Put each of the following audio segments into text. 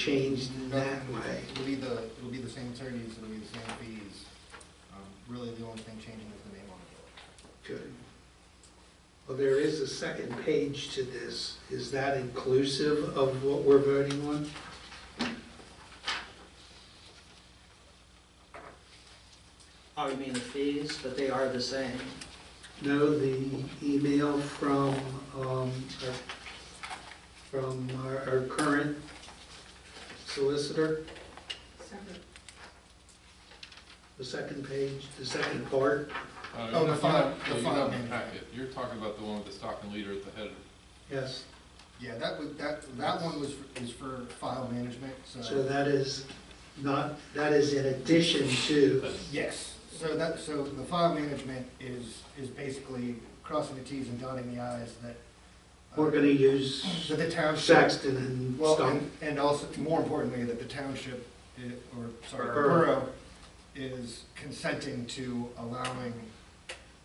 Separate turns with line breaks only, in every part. changed that
Nothing.
way.
It'll be the, it'll be the same attorneys, it'll be the same fees. Um, Really, the only thing changing is the name on it.
Good. Well, there is a second page to this. Is that inclusive of what we're voting on?
Oh, you mean the fees, but they are the same.
No, the email from, um, our, from our, our current solicitor, the second page, the second part.
Oh, the
Uh, you
file-
have-
the
you
file
have the
name.
packet. You're talking about the one with the Stockton leader at the head.
Yes,
Yeah, that was, that, that one was, for- is for file management,
so
so.
that is not, that is in addition to,
That's-
Yes, so that, so the file management is, is basically crossing the Ts and dotting the Is that. uh,
we're gonna use
That the township,
Saxton and
well,
Stump.
and- and also, more importantly, that the township, i- or, sorry,
Borough.
borough is consenting to allowing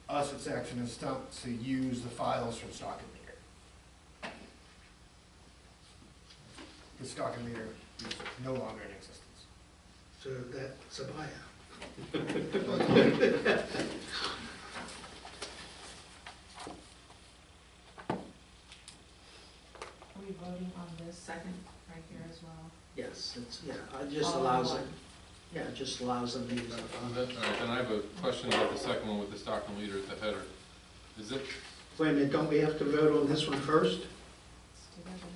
us at Saxon and Stump to use the files from Stock and Leader. The Stock and Leader is no longer in existence.
So that's a buyout.
Are we voting on this second right here as well?
Yes, it's, yeah, it just
All in
allows
one.
them, yeah, it just allows them to use
Uh,
it.
on that- all right, Then I have a question about the second one with the Stockton leader at the header. Is it,
Wait a minute, don't we have to vote on this one first?
It's together.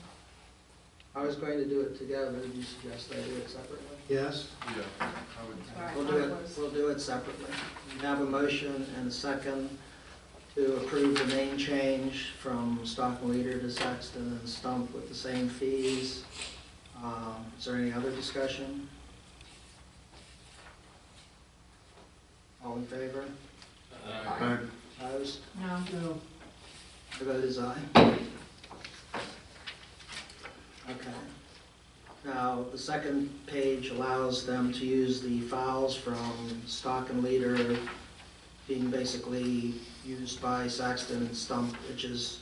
I was going to do it together, but you suggest I do it separately?
Yes?
yeah, I would,
That's what I
We'll do it,
thought was-
we'll do it separately. We have a motion and a second to approve the name change from Stockton Leader to Saxton and Stump with the same fees. Um, Is there any other discussion? All in favor?
uh,
Opposed?
No,
No.
The vote is aye. Okay. Now, the second page allows them to use the files from Stock and Leader being basically used by Saxton and Stump, which is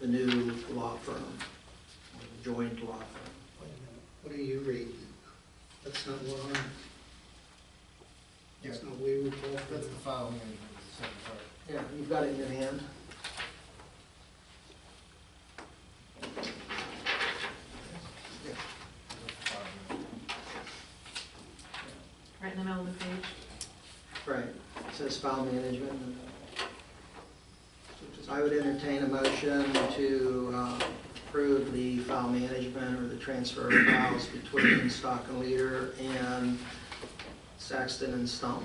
the new law firm, or the joint law firm.
Wait a minute. What are you reading? That's not what I'm,
Yeah,
that's not what we were talking
that's the
about.
file management, is the second part.
Yeah, you've got it in your hand.
That's the file management.
right in the middle of the page.
Right, it says file management. I would entertain a motion to uh, approve the file management or the transfer of files between Stock and Leader and Saxton and Stump.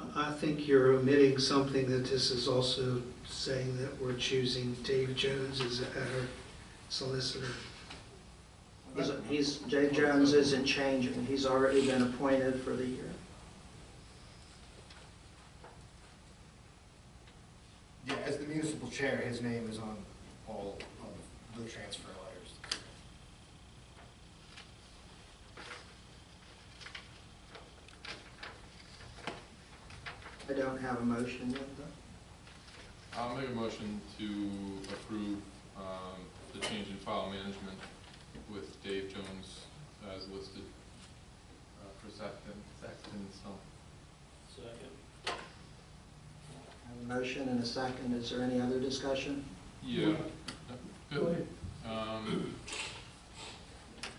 I I think you're omitting something that this is also saying that we're choosing Dave Jones as our solicitor.
He's- He's, Jay Jones isn't changing, he's already been appointed for the year.
Yeah, as the municipal chair, his name is on all of the transfer letters.
I don't have a motion yet, though.
I'll make a motion to approve um, the change in file management with Dave Jones as listed uh, for Saxton, Saxton Stump.
I have a motion and a second, is there any other discussion?
Yeah. Go ahead. Um,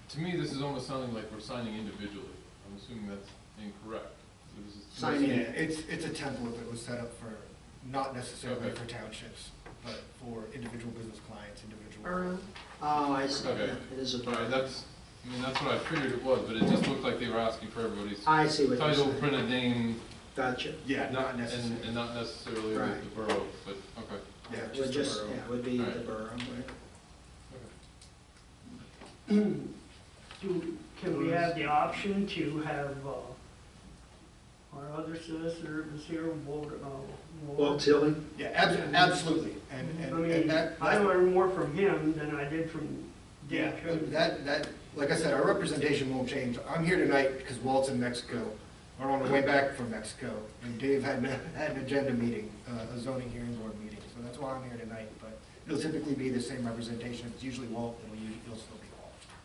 To me, this is almost sounding like we're signing individually. I'm assuming that's incorrect. So this is-
Sign
Yeah,
in.
it's, it's a template that was set up for, not necessarily
Okay.
for townships, but for individual business clients, individual.
Borough,
Oh, I see,
Okay.
it is a
All right, that's, I mean, that's what I figured it was, but it just looked like they were asking for everybody's
I see what you're
title,
saying.
print a name.
Gotcha.
Yeah, not
and-
necessarily,
And not necessarily the the
Right.
borough, but, okay.
yeah,
Would
just the
just,
borough.
yeah, would be the
Alright.
borough, right?
Do, can we have the option to have, uh, our other solicitor, Ms. Aaron Ward, uh,
Walt
Ward?
Tilly?
Yeah, abs- absolutely, and,
I
and, and
mean,
that,
I
that-
learned more from him than I did from
yeah,
Dan Cody.
that, that, like I said, our representation won't change. I'm here tonight because Walt's in Mexico, or on the way back from Mexico, and Dave had, an- had an agenda meeting, uh, a zoning hearing board meeting, so that's why I'm here tonight, but it'll typically be the same representation, it's usually Walt and